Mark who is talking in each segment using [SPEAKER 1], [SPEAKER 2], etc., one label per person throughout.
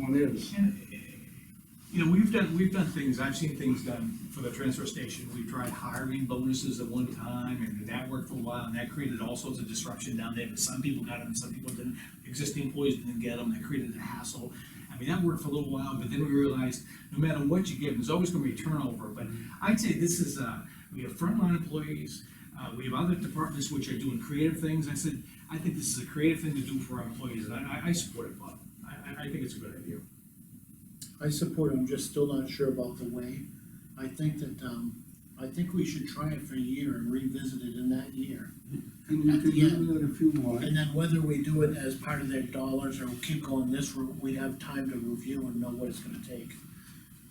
[SPEAKER 1] one is.
[SPEAKER 2] You know, we've done, we've done things, I've seen things done for the transfer station, we've tried hiring bonuses at one time, and that worked for a while, and that created all sorts of disruption down there, but some people got them, some people didn't, existing employees didn't get them, that created a hassle. I mean, that worked for a little while, but then we realized, no matter what you give, there's always gonna be turnover, but I'd say this is, uh, we have frontline employees, uh, we have other departments which are doing creative things, I said, I think this is a creative thing to do for our employees, and I, I, I support it, Bob, I, I, I think it's a good idea.
[SPEAKER 3] I support it, I'm just still not sure about the way. I think that, um, I think we should try it for a year and revisit it in that year.
[SPEAKER 1] And you could do that if you want.
[SPEAKER 3] And then whether we do it as part of their dollars or keep going this route, we'd have time to review and know what it's gonna take.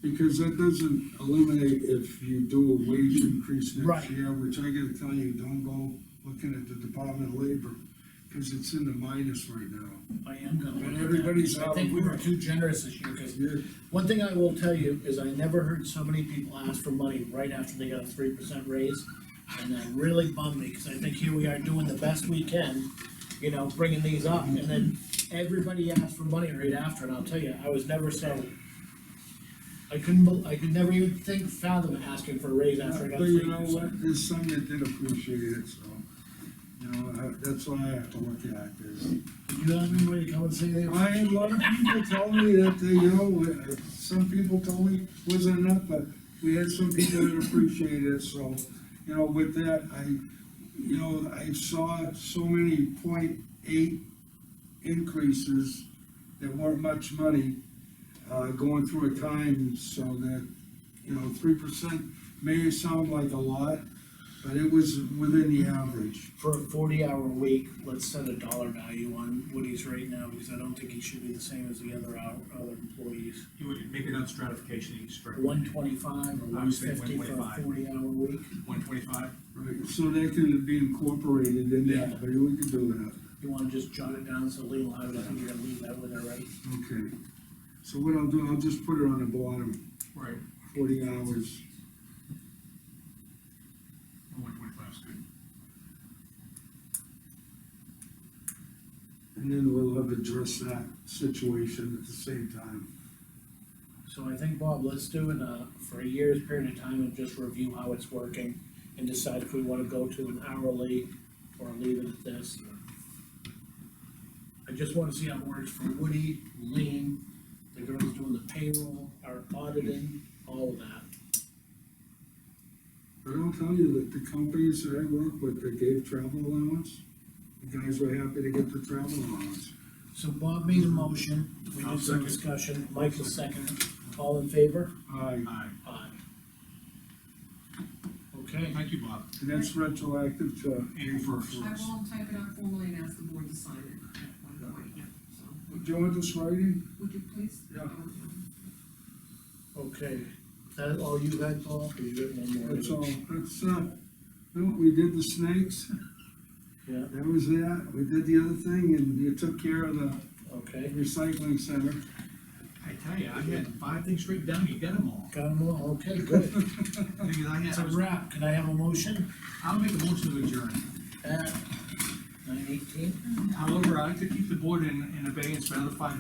[SPEAKER 1] Because that doesn't eliminate if you do a wage increase next
[SPEAKER 3] Right.
[SPEAKER 1] year, which I gotta tell you, don't go looking at the Department of Labor, because it's in the minus right now.
[SPEAKER 3] I am gonna.
[SPEAKER 1] But
[SPEAKER 3] look at that,
[SPEAKER 1] everybody's
[SPEAKER 3] because
[SPEAKER 1] out
[SPEAKER 3] I
[SPEAKER 1] of
[SPEAKER 3] think we were
[SPEAKER 1] work.
[SPEAKER 3] too generous this year, cause
[SPEAKER 1] Yeah,
[SPEAKER 3] one thing I will tell you is I never heard so many people ask for money right after they got a three percent raise. And that really bummed me, cause I think here we are doing the best we can, you know, bringing these up, and then everybody asked for money right after, and I'll tell you, I was never so. I couldn't, bel- I could never even think fathom asking for a raise after I got
[SPEAKER 1] but
[SPEAKER 3] three
[SPEAKER 1] you know what,
[SPEAKER 3] percent.
[SPEAKER 1] there's some that did appreciate it, so, you know, I- that's why I have to look at is
[SPEAKER 3] You know, anybody come and say they.
[SPEAKER 1] I had a lot of people tell me that, uh, you know, uh, some people told me wasn't enough, but we had some people that appreciated it, so, you know, with that, I, you know, I saw so many point eight increases that weren't much money, uh, going through a time, so that, you know, three percent may sound like a lot, but it was within the average.
[SPEAKER 3] for a forty-hour week, let's set a dollar value on what he's right now, because I don't think he should be the same as the other hour, other employees.
[SPEAKER 2] You would make another stratification each for
[SPEAKER 3] One twenty-five or
[SPEAKER 2] I
[SPEAKER 3] one
[SPEAKER 2] would say
[SPEAKER 3] fifty for a
[SPEAKER 2] 125.
[SPEAKER 3] forty-hour week,
[SPEAKER 2] one twenty-five.
[SPEAKER 1] Right, so that can be incorporated in
[SPEAKER 3] Yeah.
[SPEAKER 1] that, but we could do that.
[SPEAKER 3] you wanna just jot it down, so Lee will have it, I think you're gonna leave that with her, right?
[SPEAKER 1] Okay, so what I'll do, I'll just put it on the bottom,
[SPEAKER 2] Right.
[SPEAKER 1] forty hours.
[SPEAKER 2] One twenty-five is good.
[SPEAKER 1] And then we'll have addressed that situation at the same time.
[SPEAKER 3] So I think, Bob, let's do it, uh, for a year's period of time and just review how it's working, and decide if we wanna go to an hourly or leave it at this. I just wanna see how it works for Woody, Lean, the girls doing the payroll, our auditing, all of that.
[SPEAKER 1] But I'll tell you that the companies that I work with that gave travel allowance, the guys were happy to get the travel allowance.
[SPEAKER 3] So Bob made a motion, we
[SPEAKER 2] I'll
[SPEAKER 3] did some
[SPEAKER 2] second.
[SPEAKER 3] discussion, Michael seconded, all in favor?
[SPEAKER 1] Aye,
[SPEAKER 2] Aye.
[SPEAKER 3] Aye. Okay,
[SPEAKER 2] Thank you, Bob.
[SPEAKER 1] and that's retroactive to
[SPEAKER 2] April first.
[SPEAKER 1] April
[SPEAKER 4] I
[SPEAKER 1] first.
[SPEAKER 4] will type it out formally and ask the board to sign it at one point, yeah, so,
[SPEAKER 1] Do you want this writing?
[SPEAKER 4] would you please?
[SPEAKER 1] Yeah.
[SPEAKER 3] okay, that all you had, Paul, or you got one more?
[SPEAKER 1] That's all, that's, uh, no, we did the snakes,
[SPEAKER 3] Yeah,
[SPEAKER 1] that was that, we did the other thing, and you took care of the
[SPEAKER 3] okay,
[SPEAKER 1] recycling center.
[SPEAKER 2] I tell you, I had five things written down, you got them all.
[SPEAKER 3] got them all, okay, good.
[SPEAKER 2] Because I
[SPEAKER 3] It's a
[SPEAKER 2] had,
[SPEAKER 3] wrap, can I have a motion
[SPEAKER 2] I'll make a motion to adjourn.
[SPEAKER 3] at nine eighteen?
[SPEAKER 2] However, I'd like to keep the board in, in abeyance for another five